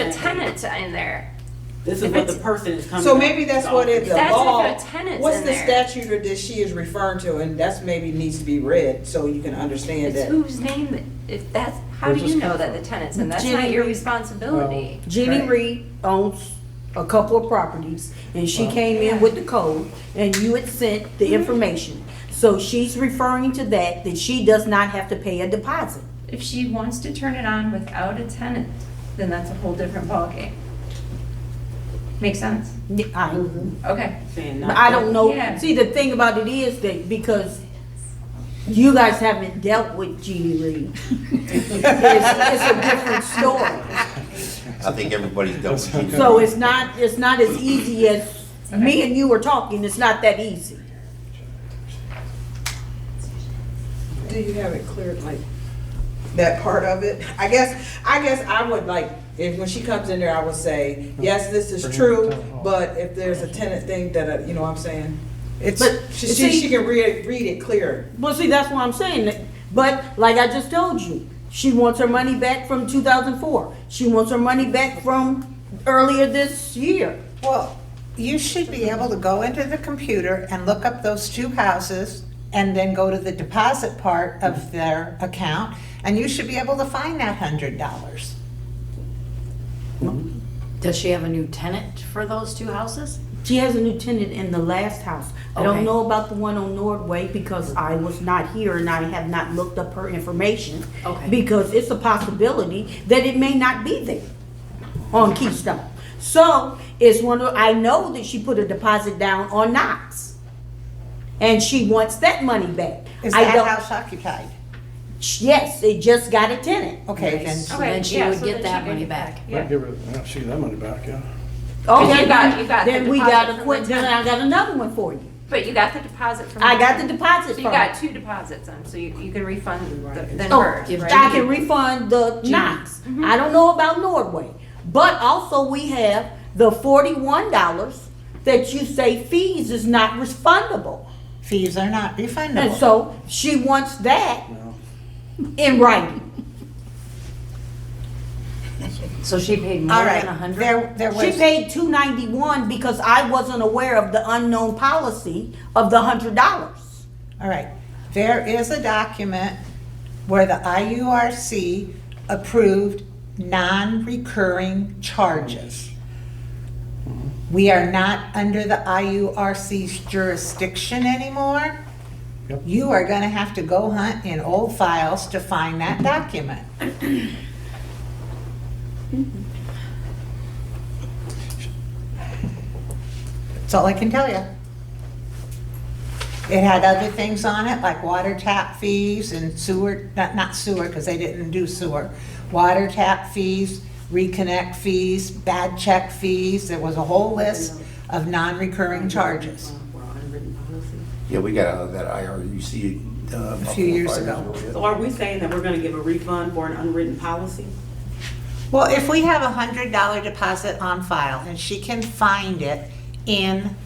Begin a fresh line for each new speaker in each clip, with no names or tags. a tenant in there.
This is
If
what the
it's-
person is coming.
So
up
maybe that's
to
what it, the
That's if
law,
a tenant's
what's
in
the
there.
statute or that she is referring to, and that's maybe needs to be read, so you can understand
It's
that.
whose name, that- if that's, how do
Where's
you
this
know
come
that the
from?
tenant's in? That's not your responsibility.
Jeannie
Right.
Reed owns a couple of properties, and she came in with the code, and you had sent the information. So she's referring to that, that she does not have to pay a deposit.
If she wants to turn it on without a tenant, then that's a whole different ballgame. Makes sense?
Yeah, I,
Okay.
Saying
but
not
I don't know,
Yeah.
see, the thing about it is that because you guys haven't dealt with Jeannie Reed. It's, it's a different story.
I think everybody's dealt with it.
So it's not, it's not as easy as me and you were talking, it's not that easy.
Do you have it cleared, like, that part of it? I guess, I guess I would like, if, when she comes in there, I would say, yes, this
Bring
is
it
true,
to town hall.
but if there's a tenant thing that, uh, you know what I'm saying? It's,
But,
she,
see-
she she can read, read it clear.
Well, see, that's what I'm saying. that- But like I just told you, she wants her money back from two thousand four. She wants her money back from earlier this year.
Well, you should be able to go into the computer and look up those two houses and then go to the deposit part of their account, and you should be able to find that hundred dollars.
Does she have a new tenant for those two houses?
She has a new tenant in the last house. I
Okay.
don't know about the one on Nordway because I was not here and I have not looked up her information.
Okay.
Because it's a possibility that it may not be there on Keystone. So it's one of, I know that she put a deposit down on Knox. And she wants that money back.
Is
I
that
don't-
house occupied?
Yes, they just got a tenant.
Okay, then,
So then she
yeah,
would
so then she
get that
could
money back.
Yeah.
Give her, yeah, she get that money back, yeah.
But you got- you got the
Oh, Then we
deposit
got
from
a
the
quick, then I
tenant.
got another one for you.
Mm-hmm.
But you got the deposit from.
I got the
So
deposit
you
from.
got two deposits on, so you, you can refund the- then
Oh,
hers,
if
right? Mm-hmm.
I can refund the Knox. I don't know about Nordway. But also we have the forty-one dollars that you say fees is not refundable.
fees are not
And
refundable.
so she wants that
No.
in writing.
So she paid more
All
than a
right,
hundred?
there, there
She
was,
paid two ninety-one because I wasn't aware of the unknown policy of the hundred dollars.
all right, there is a document where the IURC approved non-recurring charges. We are not under the IURC's jurisdiction anymore.
Yep.
You are gonna have to go hunt in old files to find that document. That's all I can tell you. It had other things on it, like water tap fees and sewer, not, not sewer, because they didn't do sewer. Water tap fees, reconnect fees, bad check fees, there was a whole list of non-recurring charges.
Yeah, we got out of that IRUC. uh,
A few years
five
ago.
So are we saying that we're gonna give a refund for an unwritten policy?
Well, if we have a hundred dollar deposit on file and she can find it in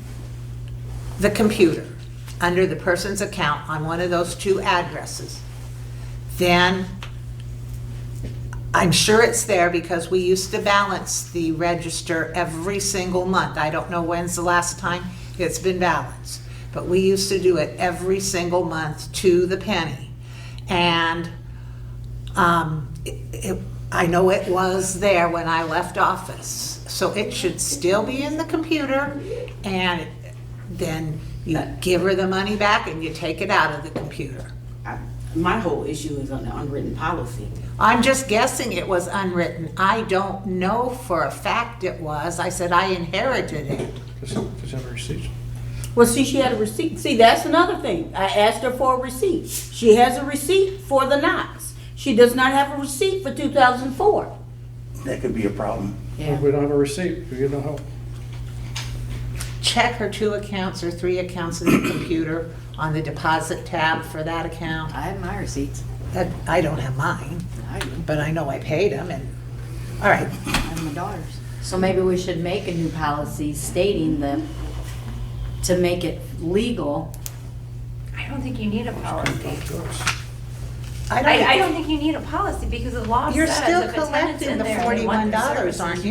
the computer, under the person's account on one of those two addresses, then I'm sure it's there because we used to balance the register every single month. I don't know when's the last time it's been balanced, but we used to do it every single month to the penny. And um, it- it- I know it was there when I left office, so it should still be in the computer, and then you give her the money back and you take it out of the computer.
I- My whole issue is on the unwritten policy.
I'm just guessing it was unwritten. I don't know for a fact it was. I said I inherited it.
Just, just have her receipts.
Well, see, she had a receipt. See, that's another thing. I asked her for a receipt. She has a receipt for the Knox. She does not have a receipt for two thousand four.
That could be a problem.
If we don't have a receipt, we get no help.
Check her two accounts or three accounts in the computer on the deposit tab for that account.
I have my receipts.
That, I don't have mine,
I do.
but I know I paid them and, all right.
I have my daughter's. So maybe we should make a new policy stating that, to make it legal.
I don't think you need a policy.
I
I,
don't-
I don't think you need a policy because the law
You're
says
still
if a tenant's
collecting
in
the
there, they want their
$41,
services.
aren't you?